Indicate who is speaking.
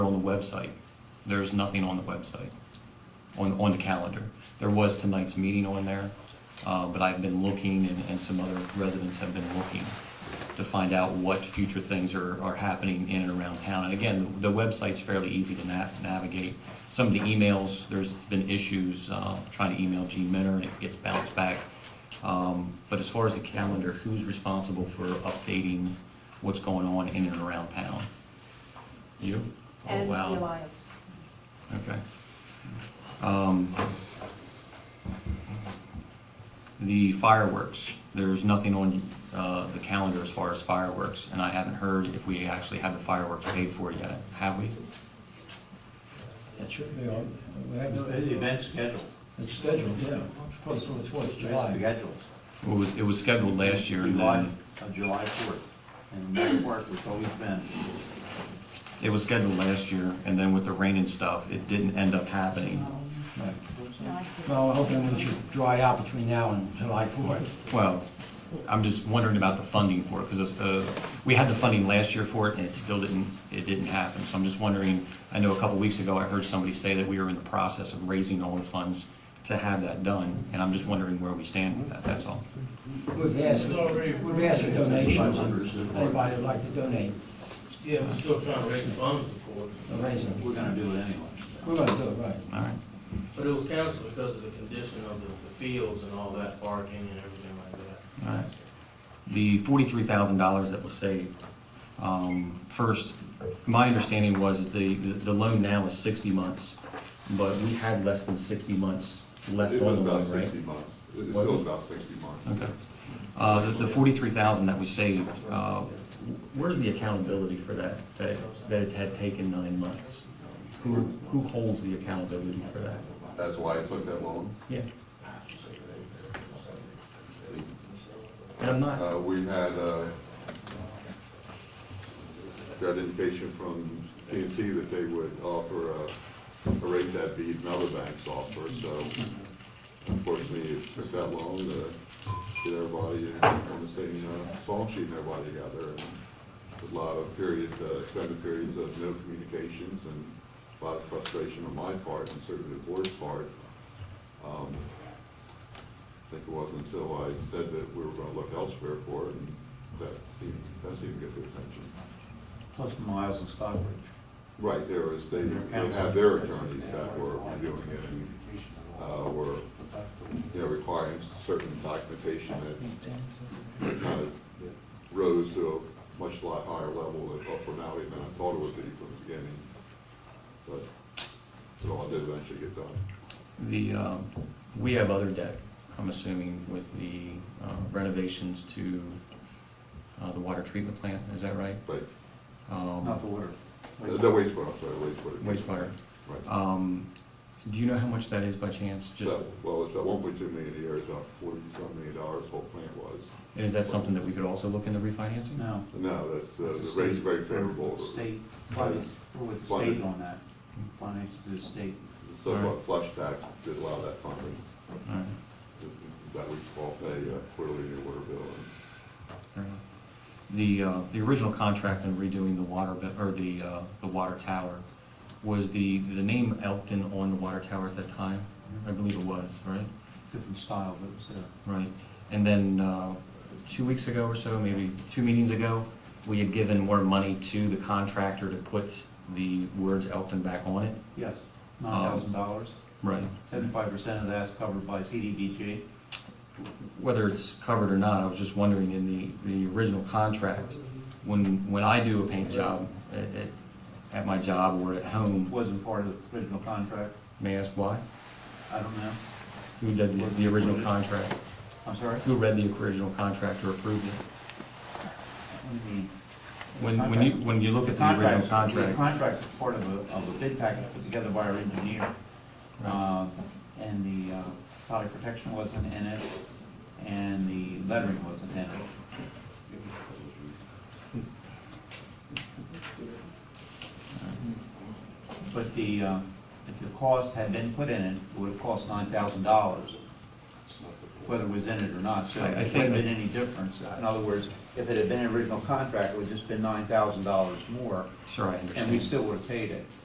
Speaker 1: website. There's nothing on the website, on, on the calendar. There was tonight's meeting on there, uh, but I've been looking and, and some other residents have been looking to find out what future things are, are happening in and around town. And again, the website's fairly easy to na- navigate. Some of the emails, there's been issues, uh, trying to email Gene Minner and it gets bounced back. Um, But as far as the calendar, who's responsible for updating what's going on in and around town? You? Oh,
Speaker 2: And the
Speaker 1: wow.
Speaker 2: Alliance.
Speaker 1: Okay. Um, The fireworks, there's nothing on uh, the calendar as far as fireworks, and I haven't heard if we actually have the fireworks paid for yet. Have we?
Speaker 3: It should be on, we have,
Speaker 4: No, The event schedule,
Speaker 3: it's scheduled, yeah, for the Fourth of
Speaker 4: event
Speaker 3: July.
Speaker 4: schedule.
Speaker 1: It was, it was scheduled last year, and
Speaker 4: July,
Speaker 1: then,
Speaker 4: uh, July fourth, and that work was always been,
Speaker 1: it was scheduled last year, and then with the rain and stuff, it didn't end up happening.
Speaker 3: Well, we're hoping it should dry out between now and July fourth.
Speaker 1: Well, I'm just wondering about the funding for it, because we had the funding last year for it, and it still didn't, it didn't happen. So I'm just wondering, I know a couple weeks ago, I heard somebody say that we were in the process of raising all the funds to have that done, and I'm just wondering where we stand with that, that's all.
Speaker 3: We've asked, we've asked for donations, anybody would like to donate,
Speaker 5: Yeah, we're still trying to raise funds for it,
Speaker 3: a raising.
Speaker 4: we're gonna do it anyway.
Speaker 3: We're gonna do it, right.
Speaker 1: All right.
Speaker 5: but it was canceled because of the condition of the the fields and all that parking and everything like that.
Speaker 1: All right. The forty-three thousand dollars that was saved, um, first, my understanding was the, the loan now is sixty months, but we had less than sixty months left on
Speaker 6: It
Speaker 1: the
Speaker 6: was
Speaker 1: loan, right?
Speaker 6: about sixty months. It was
Speaker 1: Was
Speaker 6: still
Speaker 1: it?
Speaker 6: about sixty months.
Speaker 1: Okay. Uh, the- The forty-three thousand that we saved, uh, where's the accountability for that, that that it had taken nine months? Who, who holds the accountability for that?
Speaker 6: That's why I took that loan.
Speaker 1: Yeah. And I'm not,
Speaker 6: Uh, we had, uh, got indication from TNT that they would offer a, a rate that beat another bank's offer, so unfortunately, it took that long to get everybody on the same, uh, song sheet and everybody together. and A lot of periods, uh, extended periods of no communications and a lot of frustration on my part and certainly the board's part. Um, I think it wasn't until I said that we were gonna look elsewhere for it, and that seemed, that seemed to get their attention.
Speaker 4: Plus Miles and Stockbridge.
Speaker 6: Right, there was, they, they had their attorneys that were reviewing it, and, uh, were, you know, requiring certain documentation that kind of rose to a much lot higher level of formality than I thought it would be from the beginning. But, it all did eventually get done.
Speaker 1: the, um, we have other debt, I'm assuming, with the uh, renovations to uh, the water treatment plant, is that right?
Speaker 6: But,
Speaker 1: Um,
Speaker 4: Not the water.
Speaker 6: uh, the wastewater, I'm sorry, wastewater.
Speaker 1: Wastewater.
Speaker 6: Right.
Speaker 1: Um, Do you know how much that is by chance? Just,
Speaker 6: So, Well, it's at one point two million a year, it's about forty-some million dollars, whole plant was.
Speaker 1: and is that something that we could also look into refinancing?
Speaker 4: No.
Speaker 6: No, that's, uh,
Speaker 4: It's a
Speaker 6: the rate's
Speaker 4: state-
Speaker 6: very favorable.
Speaker 4: State, finance. we're with the state on that, finance to the state.
Speaker 6: So what flush tax did allow that funding,
Speaker 1: All right,
Speaker 6: that we all pay uh, quarterly in water bill.
Speaker 1: fair enough. The, uh, the original contract and redoing the water, bi- or the, uh, the water tower, was the, the name Elkton on the water tower at that time? I believe it was, right?
Speaker 4: Different style, but it's, uh,
Speaker 1: Right. And then, uh, two weeks ago or so, maybe two meetings ago, we had given more money to the contractor to put the words Elkton back on it.
Speaker 4: yes,
Speaker 1: Um,
Speaker 4: nine thousand dollars.
Speaker 1: Right.
Speaker 4: Seventy-five percent of that's covered by CDBG.
Speaker 1: whether it's covered or not, I was just wondering in the, the original contract, when, when I do a paint job at, at, at my job or at home,
Speaker 4: Wasn't part of the original contract.
Speaker 1: may I ask why?
Speaker 4: I don't know.
Speaker 1: Who did the, the original contract?
Speaker 4: I'm sorry?
Speaker 1: Who read the original contract or approved it?
Speaker 4: What do you mean?
Speaker 1: When, when you, when you look at the original
Speaker 4: The
Speaker 1: contract,
Speaker 4: contract is part of a, of a bid package put together by our engineer. Uh, And the uh, product protection wasn't in it, and the lettering wasn't in it.
Speaker 1: Hmm.
Speaker 4: But the, uh, if the cost had been put in it, it would have cost nine thousand dollars, whether it was in it or not, so
Speaker 1: I- I
Speaker 4: it
Speaker 1: think
Speaker 4: wouldn't have
Speaker 1: that-
Speaker 4: been any difference. In other words, if it had been an original contract, it would have just been nine thousand dollars more,
Speaker 1: sure, I
Speaker 4: and we
Speaker 1: understand.
Speaker 4: still would have paid it.